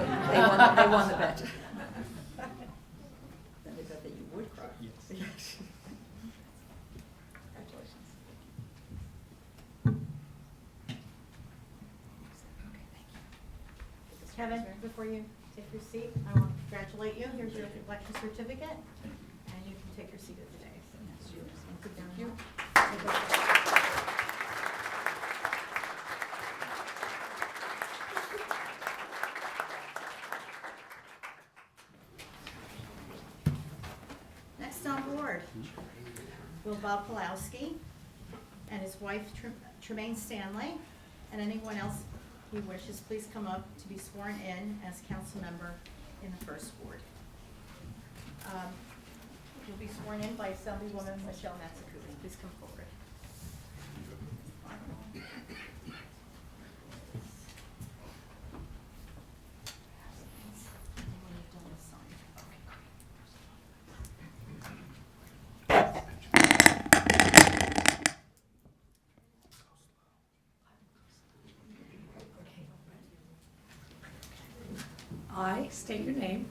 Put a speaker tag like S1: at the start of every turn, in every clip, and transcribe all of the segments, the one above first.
S1: They won, the- they won the bet. Then they bet that you would cry.
S2: Yes.
S1: Congratulations. Okay, thank you.
S3: Kevin, before you take your seat, I want to congratulate you. Here's your election certificate,
S2: Thank you.
S3: and you can take your seat at the day. So that's yours. And sit down
S1: Thank you.
S3: now. Next on board, Will Bob Palowski and his wife Tre- Tremaine Stanley, and anyone else who wishes, please come up to be sworn in as council member in the first ward. Um, You'll be sworn in by Assemblywoman Michelle Matsakubis. Please come forward. Anyone you've done this sign? Okay, great.
S4: I state your name,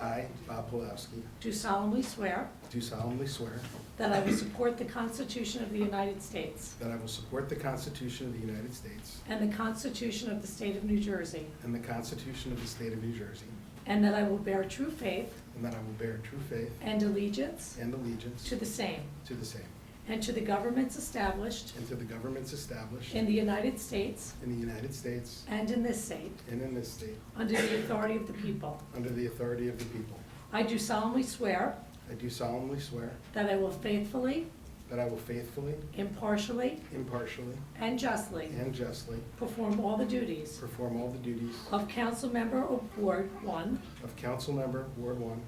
S5: I, Bob Pulowski,
S4: do solemnly swear
S5: do solemnly swear
S4: that I will support the Constitution of the United States
S5: that I will support the Constitution of the United States
S4: and the Constitution of the State of New Jersey,
S5: and the Constitution of the State of New Jersey,
S4: and that I will bear true faith
S5: and that I will bear true faith
S4: and allegiance
S5: and allegiance
S4: to the same
S5: to the same,
S4: and to the governments established
S5: and to the governments established
S4: in the United States
S5: in the United States
S4: and in this state,
S5: and in this state,
S4: under the authority of the people.
S5: under the authority of the people.
S4: I do solemnly swear
S5: I do solemnly swear
S4: that I will faithfully,
S5: that I will faithfully,
S4: impartially,
S5: impartially,
S4: and justly
S5: and justly
S4: perform all the duties
S5: perform all the duties
S4: of council member of Ward One
S5: of council member, Ward One,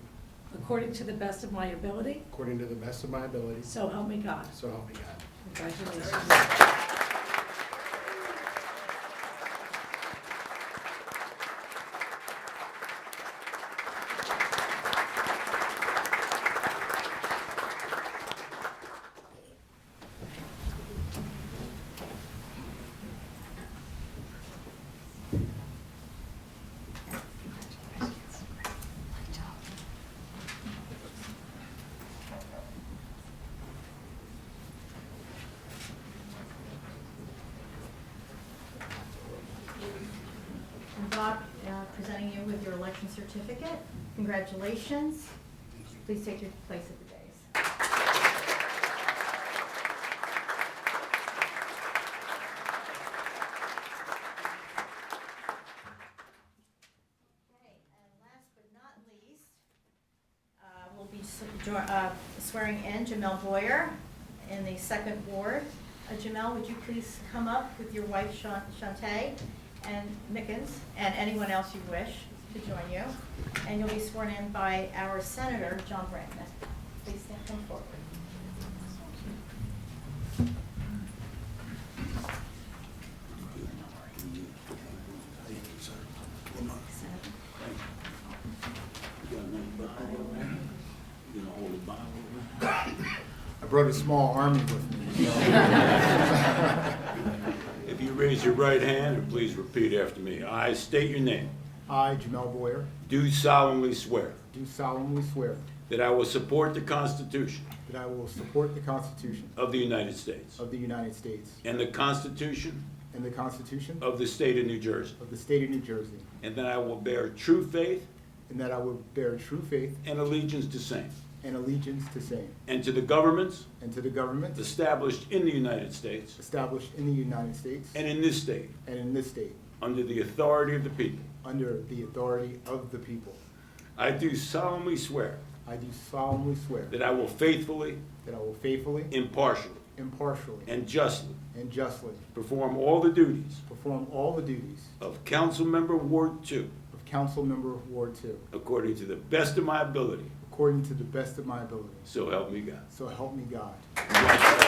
S4: according to the best of my ability,
S5: according to the best of my ability,
S4: so help me God.
S5: so help me God.
S4: Congratulations.
S3: And Bob, uh, presenting you with your election certificate. Congratulations. Please take your place at the dais. Okay, and last but not least, uh, we'll be s- jo- uh, swearing in Jamel Boyer in the second ward. Uh, Jamel, would you please come up with your wife Shan- Shantae and Mickens and anyone else you wish to join you? And you'll be sworn in by our Senator, John Brandon. Please stand come forward. Senator.
S6: I brought a small army with me.
S7: If you raise your right hand and please repeat after me. I state your name.
S6: I, Jamel Boyer,
S7: Do solemnly swear
S6: do solemnly swear
S7: that I will support the Constitution
S6: that I will support the Constitution
S7: of the United States
S6: of the United States
S7: and the Constitution
S6: and the Constitution
S7: of the State of New Jersey,
S6: of the State of New Jersey,
S7: and that I will bear true faith
S6: and that I will bear true faith
S7: and allegiance to same,
S6: and allegiance to same,
S7: and to the governments
S6: and to the government
S7: established in the United States
S6: established in the United States
S7: and in this state,
S6: and in this state,
S7: under the authority of the people.
S6: under the authority of the people.
S7: I do solemnly swear
S6: I do solemnly swear
S7: that I will faithfully,
S6: that I will faithfully,
S7: impartially,
S6: impartially,
S7: and justly
S6: and justly
S7: perform all the duties
S6: perform all the duties
S7: of council member Ward Two
S6: of council member of Ward Two
S7: according to the best of my ability,
S6: according to the best of my ability.
S7: so help me God.
S6: So help me God.
S7: Congratulations.